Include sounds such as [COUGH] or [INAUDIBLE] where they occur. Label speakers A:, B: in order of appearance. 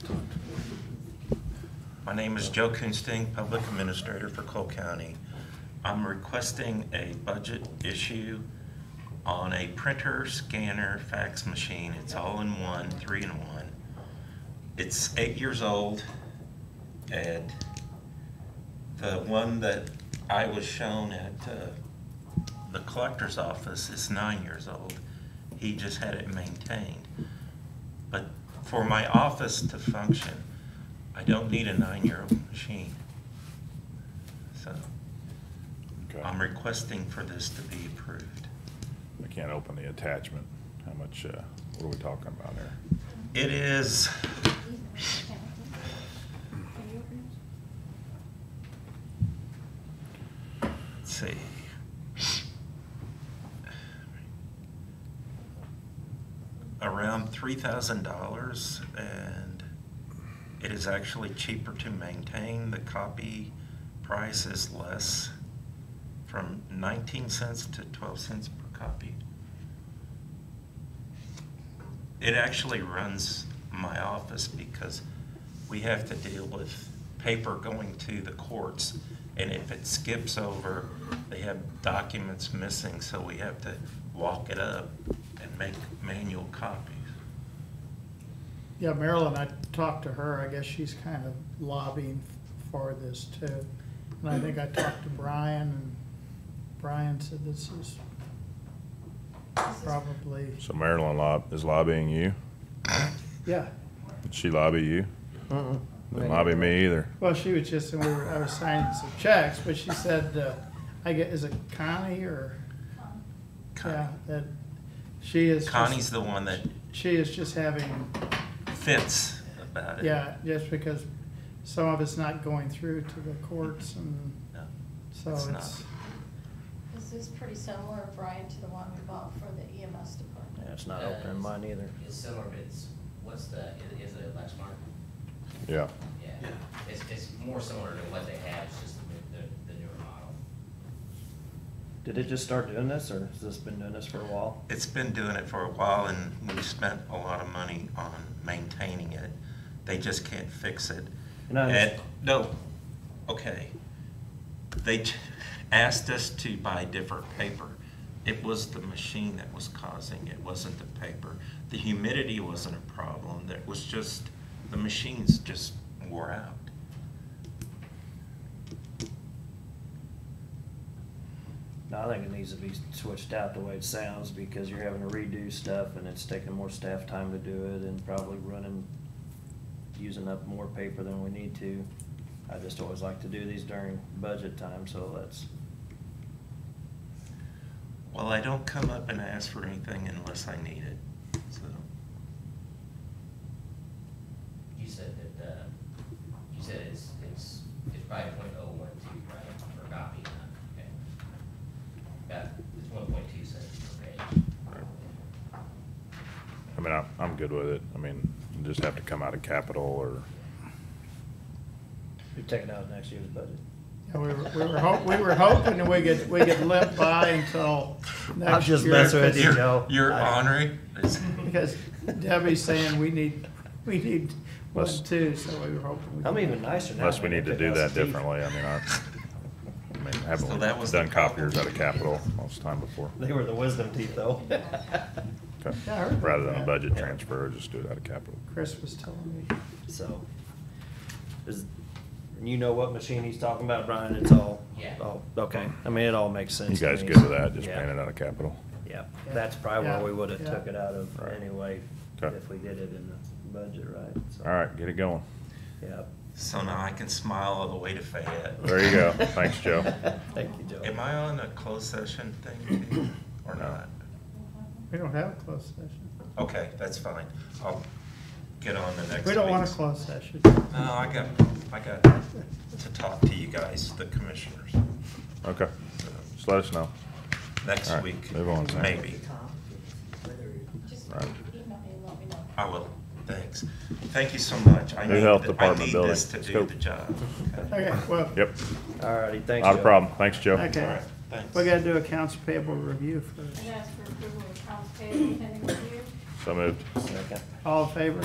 A: My name is Joe Kunsting, Public Administrator for Cole County. I'm requesting a budget issue on a printer, scanner, fax machine. It's all in one, three in one. It's eight years old, and the one that I was shown at uh, the collector's office is nine years old. He just had it maintained. But for my office to function, I don't need a nine-year-old machine. So
B: Okay.
A: I'm requesting for this to be approved.
B: I can't open the attachment. How much, uh, what are we talking about here?
A: It is, let's see. Around three thousand dollars and it is actually cheaper to maintain. The copy price is less from nineteen cents to twelve cents per copy. It actually runs my office because we have to deal with paper going to the courts. And if it skips over, they have documents missing, so we have to walk it up and make manual copies.
C: Yeah, Marilyn, I talked to her, I guess she's kind of lobbying for this too. And I think I talked to Brian, and Brian said this is probably,
B: So Marilyn lob, is lobbying you?
C: yeah.
B: Did she lobby you?
D: Uh-uh.
B: Didn't lobby me either.
C: Well, she was just, and we were, I was signing some checks, but she said, uh, I get, is it Connie or, yeah,
A: Con-
C: that, she is just-
A: Connie's the one that
C: She is just having
A: fits about it.
C: Yeah, just because some of it's not going through to the courts and
A: No,
C: so
A: It's
C: it's,
E: This is pretty similar, Brian, to the one we bought for the EMS department.
D: Yeah, it's not opening mine either.
F: It's Uh, similar, but it's, what's the, is- is it Lexmark?
B: Yeah.
F: Yeah, it's, it's more similar to what they have, it's just the, the the newer model.
D: Did it just start doing this, or has this been doing this for a while?
A: It's been doing it for a while and we've spent a lot of money on maintaining it. They just can't fix it.
D: And I
A: And,
D: understand-
A: no, okay. They ch- asked us to buy different paper. It was the machine that was causing it, wasn't the paper. The humidity wasn't a problem, that was just, the machines just wore out.
D: No, I think it needs to be switched out the way it sounds, because you're having to redo stuff, and it's taking more staff time to do it, and probably running, using up more paper than we need to. I just always like to do these during budget time, so that's,
A: Well, I don't come up and ask for anything unless I need it, so.
F: You said that, uh, you said it's, it's, it's probably point oh one two, right, per copy, huh? okay? About, it's one point two cents per page.
B: I mean, I'm, I'm good with it. I mean, you just have to come out of capital or,
D: you're taking out next year's budget.
C: yeah, we were, we were hop, we were hoping that we could, we could limp by until next
D: just messing
C: year.
D: with you.
A: You're-
D: know,
A: You're
D: I-
A: honoring, it's-
D: [LAUGHS]
C: Because Debbie's saying we need, we need one
B: Let's-
C: too, so we were hoping. we
D: I'm
C: could-
D: even nicer now.
B: unless we
D: I
B: need to
D: pick
B: do
D: out some
B: that
D: teeth.
B: differently. I mean, I, I mean,
A: So that was
B: haven't
A: the
B: done copiers out
A: problem.
B: of capital most of the time before.
D: They were the wisdom
B: [LAUGHS]
D: teeth, though. [LAUGHS]
B: Okay.
C: Yeah, I heard about
B: Rather than a
C: that.
B: budget transfer, just do it out of capital.
C: Chris was telling me.
D: So, is, you know what machine he's talking about, Brian? It's all,
F: Yeah.
D: all, okay. I mean, it all makes
B: You
D: sense. to
B: guys
D: me.
B: good with that? Just
D: Yeah.
B: paying it out of capital?
D: Yeah, that's probably where we
C: Yeah,
D: would've
C: yeah.
D: took it out of
B: Right.
D: anyway,
B: Okay.
D: if we did it in the budget, right? So,
B: All right, get it going.
D: Yeah.
A: [LAUGHS] so now I can smile all the way to Fayette.
B: There you go. Thanks, Joe.
D: [LAUGHS] Thank you, Joe.
A: [LAUGHS] Am I on a closed session thing too, or
B: No.
A: not?
C: We don't have a closed session.
A: Okay, that's fine. I'll get on Oh, the next.
C: We don't want a
A: meeting.
C: closed session.
A: No, I got, I got to talk to you guys, the commissioners,
B: Okay, just let us know. All
A: next
B: right,
A: week.
B: move on, Sam.
A: Maybe.
E: Just
B: Right.
E: email me and let me know.
A: I will. Thanks. Thank you so much. I
B: New
A: need
B: Health
A: th-
B: Department
A: I need
B: building.
A: this to
B: Let's
A: do
B: go.
A: the job.
C: Okay, well,
B: Yep,
D: Alrighty, thanks, Joe.
B: not a problem. Thanks, Joe.
C: Okay.
A: All right, thanks.
C: we gotta do accounts payable review first.
E: I asked for approval of accounts payable pending review.
B: So moved.
D: Second.
C: All in favor?